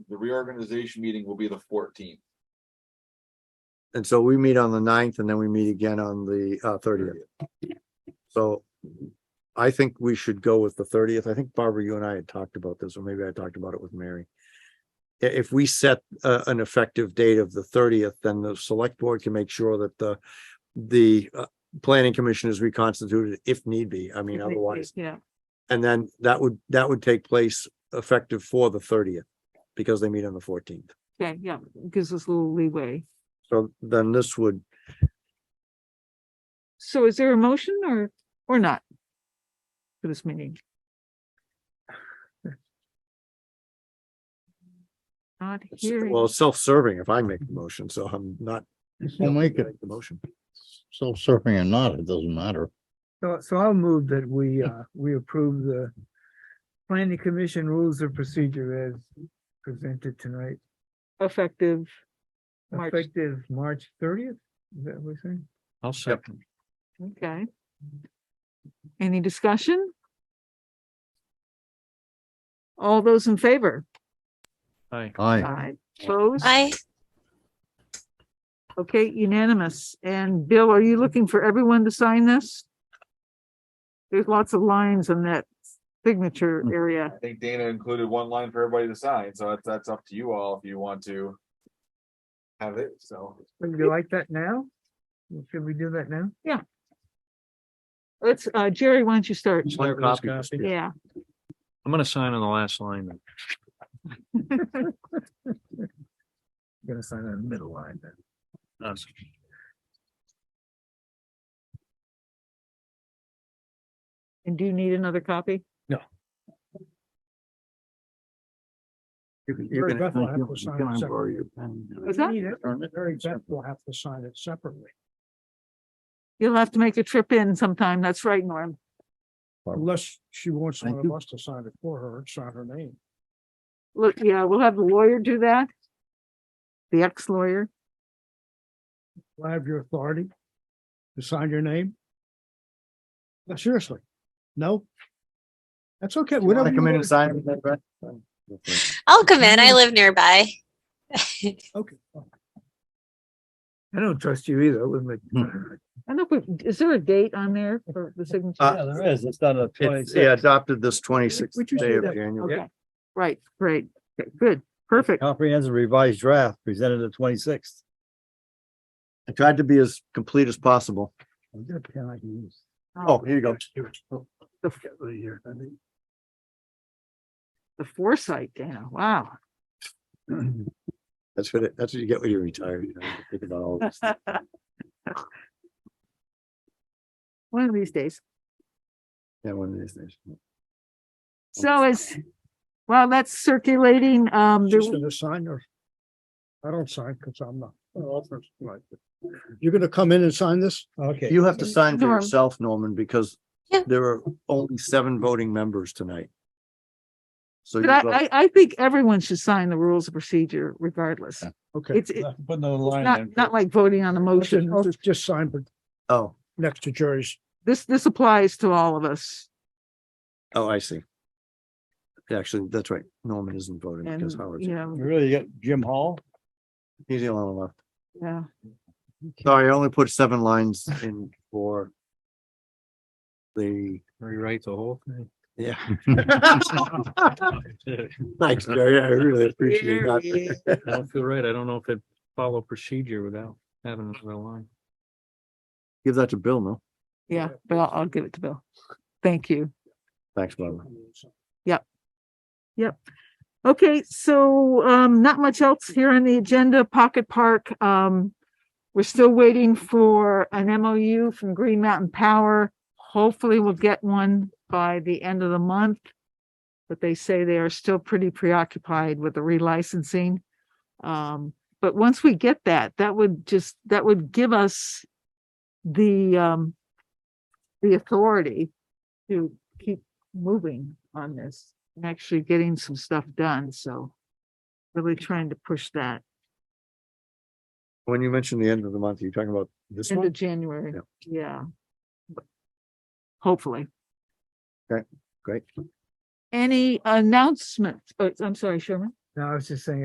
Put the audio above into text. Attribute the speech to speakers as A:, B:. A: the reorganization meeting will be the fourteenth.
B: And so we meet on the ninth and then we meet again on the uh thirtieth. So I think we should go with the thirtieth. I think Barbara, you and I had talked about this, or maybe I talked about it with Mary. I- if we set uh an effective date of the thirtieth, then the select board can make sure that the the uh, planning commission is reconstituted if need be. I mean, otherwise,
C: Yeah,
B: and then that would, that would take place effective for the thirtieth because they meet on the fourteenth.
C: okay, yeah, gives us a little leeway.
B: So then this would
C: So is there a motion or, or not? For this meeting? Not
B: It's-
C: hearing.
B: Well, it's self-serving if I make the motion, so I'm not.
D: I'll make it
B: The motion.
D: self-serving or not, it doesn't matter.
E: So, so I'll move that we, uh, we approve the planning commission rules of procedure as presented tonight,
C: Effective. March,
E: effective March thirtieth, is that what we're saying?
F: I'll second.
C: okay. Any discussion? All those in favor?
F: Aye.
D: Aye.
C: Aye. Opposed?
G: Aye.
C: Okay, unanimous. And Bill, are you looking for everyone to sign this? There's lots of lines in that signature
E: Hmm.
C: area.
A: I think Dana included one line for everybody to sign, so that's, that's up to you all if you want to. Have it, so.
E: Would you like that now? Should we do that now?
C: Let's, uh, Jerry, why don't you start?
F: Clear
B: copy.
F: copy.
C: Yeah,
F: I'm gonna sign on the last line. then.
E: Gonna sign on the middle line then.
F: Uh,
C: and do you need another copy?
B: You can- you
E: Very
B: can-
E: best we'll have
B: you
E: to
B: can
E: sign it
B: borrow
E: separately.
B: your pen.
C: Was that?
E: Very best, we'll have to sign it separately.
C: You'll have to make a trip in sometime. That's right, Norm.
E: Unless she wants
B: Oh. Thank
E: one of us to sign it for her, and sign her name.
C: Look, yeah, we'll have the lawyer do that. The ex-lawyer.
E: Do I have your authority to sign your name? No, Seriously, no? That's okay, whatever.
B: Wanna
E: you
B: Come in
E: want
B: and
E: to
B: sign.
E: do.
B: with that, Brett?
G: I'll come in. I live nearby.
E: Okay. Oh. I don't trust you either, wouldn't
C: I don't know, if we- is there a date on there for the signature?
B: Uh,
D: Yeah, there is. It's done on
B: It's, yeah, adopted this twenty-sixth
E: Would you
B: day
E: say
B: of
E: that-
B: January.
C: Okay, right, great, Okay, good, perfect.
D: Comprehensive revised draft presented the twenty-sixth.
B: I tried to be as complete as possible. Oh, here you go.
C: The foresight, Dana, wow.
B: That's what, it- that's what you get when you're retired. you know, you think about all this.
C: One of these days.
B: Yeah, one of these days.
C: So it's, well, that's circulating, um, there-
E: Just gonna sign or? I don't sign because I'm not. You're gonna come in and sign this? Okay.
B: You have to sign for
C: Norm.
B: yourself, Norman, because
G: Yeah.
B: there are only seven voting members tonight. So you
C: but I,
B: vote-
C: I, I think everyone should sign the rules of procedure regardless. It's
E: Okay.
C: it-
D: Put another line
C: not, not like voting on a motion.
E: I'll just- Just sign, but
B: oh,
E: next to Jerry's.
C: This, this applies to all of us.
B: oh, I see. Actually, that's right. Norman isn't voting
C: And,
B: because Howard's,
C: you know,
D: Really, you got Jim Hall?
B: he's the only one left.
C: yeah,
B: Sorry, I only put seven lines in for the,
F: Rewrite the whole thing.
B: yeah. Thanks, Jerry. I really appreciate that.
F: I don't feel right. I don't know if it follow procedure without having another line.
B: Give that to Bill, no?
C: yeah, but I'll, I'll give it to Bill. Thank you.
B: Thanks, Barbara.
C: Okay, so um, not much else here on the agenda, Pocket Park. Um, we're still waiting for an MOU from Green Mountain Power. Hopefully we'll get one by the end of the month. But they say they are still pretty preoccupied with the relicensing. Um, but once we get that, that would just, that would give us the um, the authority to keep moving on this and actually getting some stuff done, so really trying to push that
B: When you mentioned the end of the month, are you talking about this
C: into
B: one?
C: January, yeah. But Hopefully.
B: Okay, great.
C: Any announcements? Oh, I'm sorry, Sherman?
E: No, I was just saying,